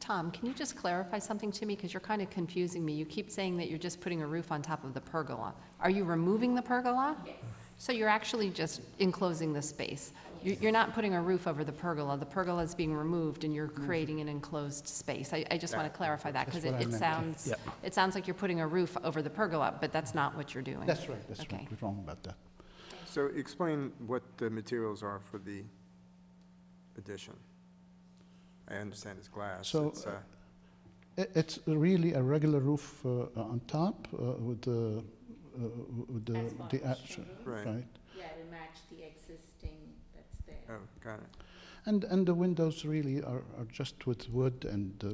Tom, can you just clarify something to me? Because you're kind of confusing me. You keep saying that you're just putting a roof on top of the pergola. Are you removing the pergola? Yes. So you're actually just enclosing the space? You- You're not putting a roof over the pergola. The pergola is being removed and you're creating an enclosed space. I, I just want to clarify Mm. that because it it sounds, it sounds like you're putting a roof over the pergola, but that's not what you're doing. That's right, that's Okay. right, we're wrong about that. So explain what the materials are for the addition. I understand it's glass, So, it's, uh, I- It's really a regular roof uh, on top uh, with the, uh, with the, Asphalt the is action, showing. Right. right? Yeah, to match the existing that's oh, there. got it. And, and the windows really are, are just with wood and uh,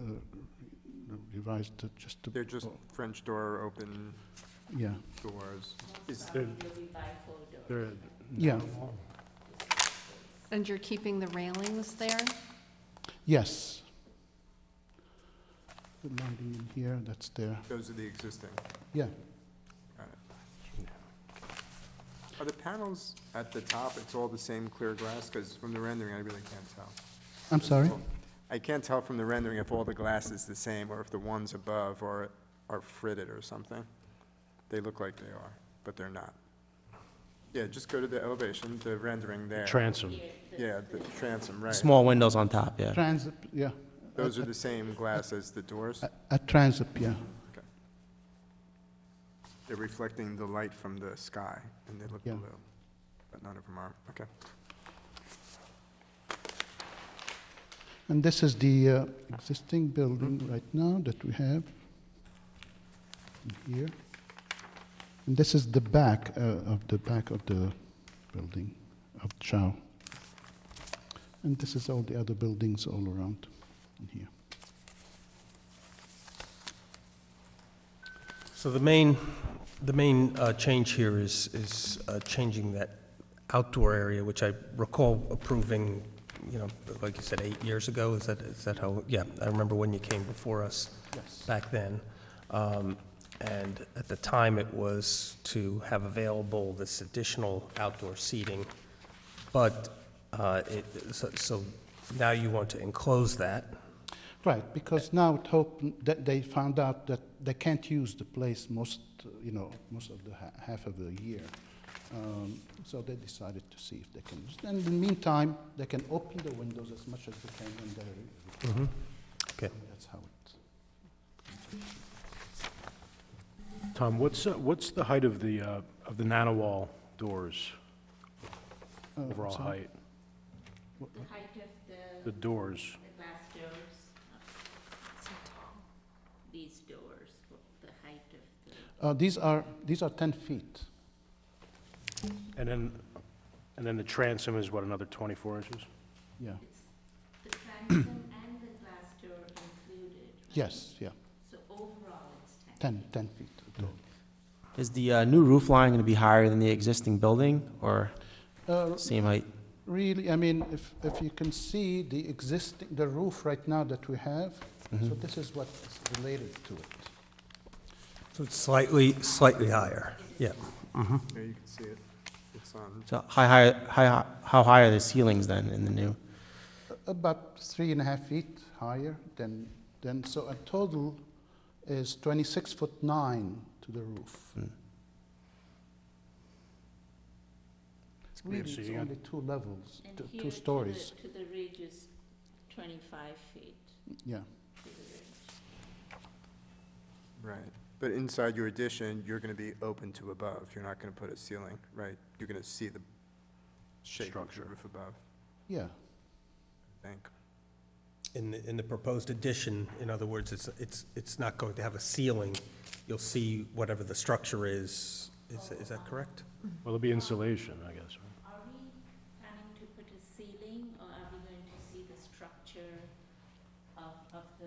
uh, revised to just to. They're just French door, open Yeah, doors. Is- Most probably will be bifold or There- yeah, And you're keeping the railings there? yes. The lighting in here, that's there, Those are the existing, yeah. got it. Are the panels at the top, it's all the same clear glass? Because from the rendering, I really can't tell. I'm sorry? I can't tell from the rendering if all the glass is the same, or if the ones above are, are fritted or something. They look like they are, but they're not. Yeah, just go to the elevation, the rendering there. Transom. Yeah, the transom, right. Small windows on top, yeah. Transit, yeah, Those are the same glass as the doors? a, a transit, yeah, Okay. They're reflecting the light from the sky, and they look Yeah. blue, but none of them are, okay. and this is the uh, existing building right now that we have. in Here. And this is the back uh, of the back of the building of Chow. And this is all the other buildings all around in here. So the main, the main uh, change here is, is uh, changing that outdoor area, which I recall approving, you know, like you said, eight years ago, is that, is that how, yeah, I remember when you came before us Yes. back then. Um, And at the time, it was to have available this additional outdoor seating, but uh, it, so- so now you want to enclose that? Right, because now it hope that they found out that they can't use the place most, uh, you know, most of the ha- half of the year. Um, so they decided to see if they can use. And in the meantime, they can open the windows as much as they can when they're. Mhm. Okay. That's how it. Tom, what's, uh, what's the height of the, uh, of the nanowall doors, uh, overall so- height? the height of The the, doors, the glass doors. These doors, what the height of the. Uh, these are these are ten feet. and then, and then the transom is what, another 24 inches? Yeah. It's the transom and the glass door included. right? Yes. Yeah. So overall, it's ten. Ten. Ten feet. tall. Is the uh, new roof line going to be higher than the existing building or Uh, same height? Really, I mean, if, if you can see the existing, the roof right now that we have, Mm-hmm. so this is what is related to it. So it's slightly, slightly higher, yeah. There you can see it. It's on, So how high, high, how high are the ceilings then in the new? A- About three and a half feet higher than, than, so a total is 26 foot 9 to the roof. Hmm. Really, So it's you got- only two levels, And two- here to two the- stories, To the ridge is twenty-five feet yeah. to the ridge. right. But inside your addition, you're gonna be open to above, you're not gonna put a ceiling, right? You're gonna see the shape of the Structure. roof above, Yeah, I think. In the, in the proposed addition, in other words, it's, it's, it's not going to have a ceiling. You'll see whatever the structure is. Is, is that correct? Well, it'll be insulation, I guess, right? Are we planning to put a ceiling, or are we going to see the structure of, of the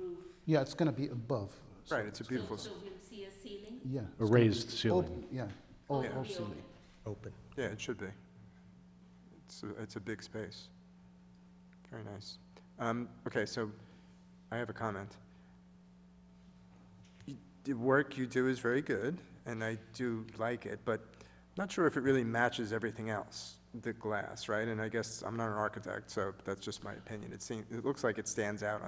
roof? yeah, it's going to be above. so- Right, it's a So- beautiful, So s- we'll see a ceiling? Yeah. it's A gonna raised be ceiling. open, Yeah, all, Or Yeah. all we open? ceiling. Open. yeah, it should be. It's, a- it's a big space. Very nice. Um, okay, so I have a comment. Y- The work you do is very good, and I do like it, but I'm not sure if it really matches everything else. the glass, right? And I guess, I'm not an architect, so that's just my opinion. It seems, it looks like it stands out